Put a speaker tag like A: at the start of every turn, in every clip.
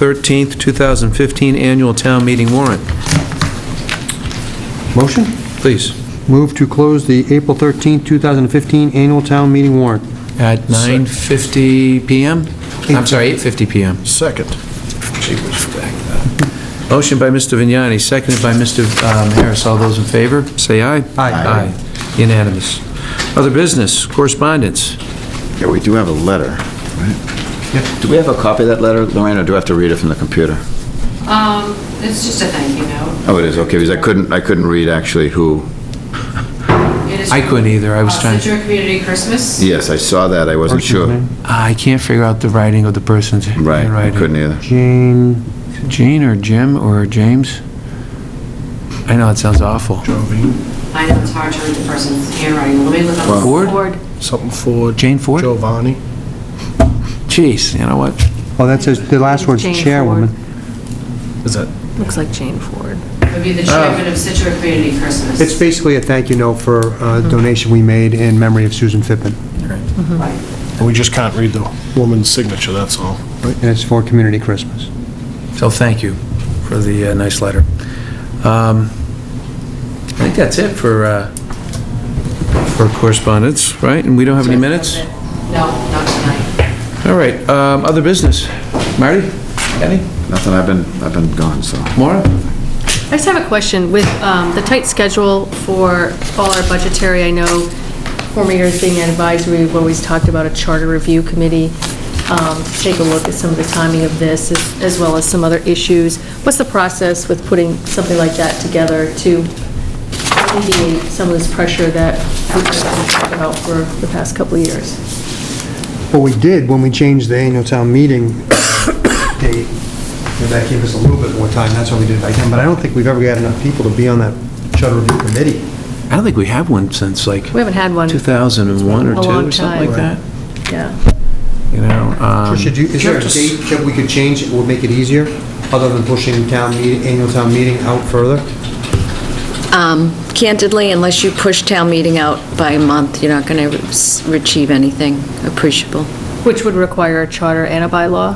A: 13th, 2015 Annual Town Meeting warrant.
B: Motion?
A: Please.
B: Move to close the April 13, 2015 annual town meeting warrant.
A: At 9:50 PM? I'm sorry, 8:50 PM.
C: Second.
A: Motion by Mr. Vignani, seconded by Mr. um, Harris. All those in favor, say aye.
B: Aye.
A: Aye. Unanimous. Other business, correspondence.
C: Yeah, we do have a letter, right? Do we have a copy of that letter, Lorraine, or do I have to read it from the computer?
D: Um, it's just a thank you note.
C: Oh, it is, okay, because I couldn't, I couldn't read actually who,
D: It is
A: I couldn't either. I was
D: from, uh,
A: trying to-
D: Situate Community Christmas.
C: yes, I saw that, I wasn't
B: Person's
C: sure.
B: name?
A: I can't figure out the writing of the person's
C: Right,
A: handwriting.
C: I couldn't either.
B: Jane,
A: Jean or Jim or James? I know, it sounds awful.
D: I know it's hard to read the person's handwriting. Let me look up.
A: Ford?
D: Ford.
E: Something for
A: Jane Ford?
E: Giovanni.
A: Jeez, you know what?
B: oh, that says, the last word's
F: Jane Ford.
B: chairwoman.
E: Is that?
F: Looks like Jane Ford.
D: Would
C: Uh,
D: be the chairman of Situate Community Christmas.
B: It's basically a thank you note for a donation we made in memory of Susan Fippen,
D: Right.
E: We just can't read the woman's signature, that's all.
B: and it's for Community Christmas.
A: So thank you for the uh, nice letter. Um, I think that's it for, uh, for correspondence, right? And we don't have any minutes?
D: No, not tonight.
A: All right, um, other business. Marty? Any?
C: Nothing, I've been, I've been gone, so.
A: Maura?
F: I just have a question with um, the tight schedule for all our budgetary, I know former years being an advisory, we've always talked about a charter review committee, um, to take a look at some of the timing of this, as- as well as some other issues. What's the process with putting something like that together to alleviate some of this pressure that we've been talking about for the past couple of years?
B: What we did when we changed the annual town meeting date, you know, that gave us a little bit more time, that's why we did it back then, but I don't think we've ever got enough people to be on that charter review committee.
A: I don't think we have one since like
F: We haven't had one,
A: 2001 or
F: A
A: 2,
F: long
A: or something like that.
B: time.
F: yeah.
A: You know? um,
B: Tricia, do, is there a
A: just-
B: date that we could change that would make it easier, other than pushing town meeting, annual town meeting out further?
G: Um, Candidly, unless you push town meeting out by a month, you're not going to achieve anything appreciable.
F: Which would require a charter and a bylaw?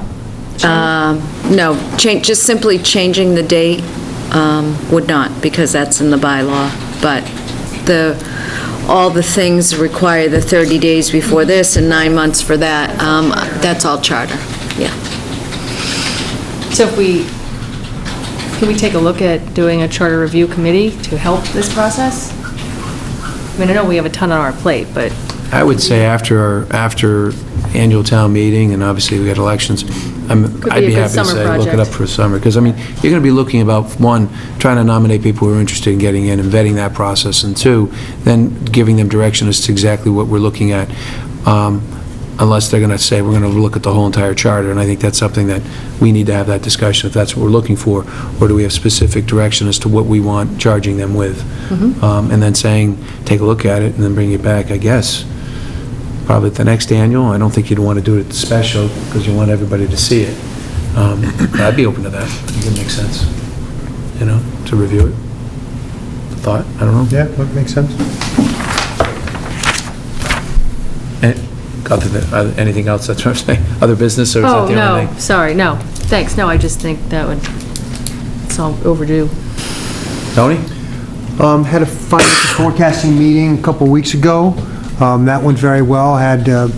G: Um, No, change, just simply changing the date um, would not, because that's in the bylaw, but the, all the things require the 30 days before this and nine months for that, Um, that's all charter, yeah.
F: So if we, can we take a look at doing a charter review committee to help this process? I mean, I know we have a ton on our plate, but
A: I would say after, our after annual town meeting, and obviously we got elections, I'm-
F: Could
A: I'd
F: be a
A: be
F: good
A: happy to
F: summer
A: say, look it up
F: project.
A: for a summer, because I mean, you're going to be looking about, one, trying to nominate people who are interested in getting in and vetting that process, and two, then giving them direction as to exactly what we're looking at, um, unless they're going to say, we're going to look at the whole entire charter, and I think that's something that we need to have that discussion, if that's what we're looking for, or do we have specific direction as to what we want charging them with?
F: Mm-hmm.
A: Um, And then saying, take a look at it, and then bring it back, I guess probably at the next annual. I don't think you'd want to do it special, because you want everybody to see it. Um, but I'd be open to that. I think it makes sense, you know, to review it. Thought, I don't know.
B: Yeah, that makes sense.
A: Eh, Other than, uh, anything else, that's what I'm saying? Other business, or is that
F: Oh,
A: the only
F: no,
A: thing?
F: sorry, no, thanks, no, I just think that would, it's all overdue.
A: Tony?
B: Um, Had a financial forecasting meeting a couple weeks ago. Um, That went very well, had uh,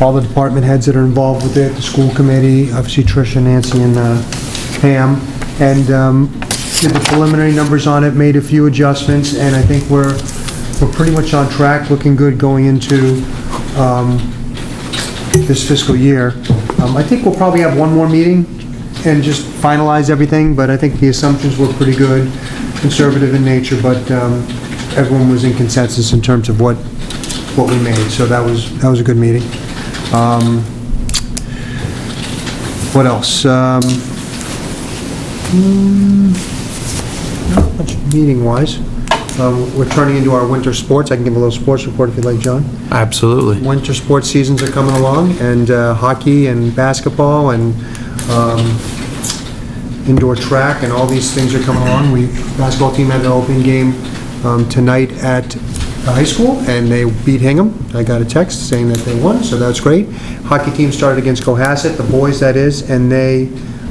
B: all the department heads that are involved with it, the school committee, obviously Tricia, Nancy, and uh, Pam, and um, did the preliminary numbers on it, made a few adjustments, and I think we're, we're pretty much on track, looking good going into um, this fiscal year. Um, I think we'll probably have one more meeting and just finalize everything, but I think the assumptions were pretty good, conservative in nature, but um, everyone was in consensus in terms of what, what we made, so that was, that was a good meeting. Um, What else? Um, hmm, Not much meeting-wise. Um, We're turning into our winter sports, I can give a little sports report if you'd like, John.
A: Absolutely.
B: Winter sports seasons are coming along, and uh, hockey and basketball and um, indoor track and all these things are coming along. We, basketball team had an open game um, tonight at, I the high school, and they beat Hingham. I got a text saying that they won, so that's great. Hockey team started against Cohasset, the boys that is, and they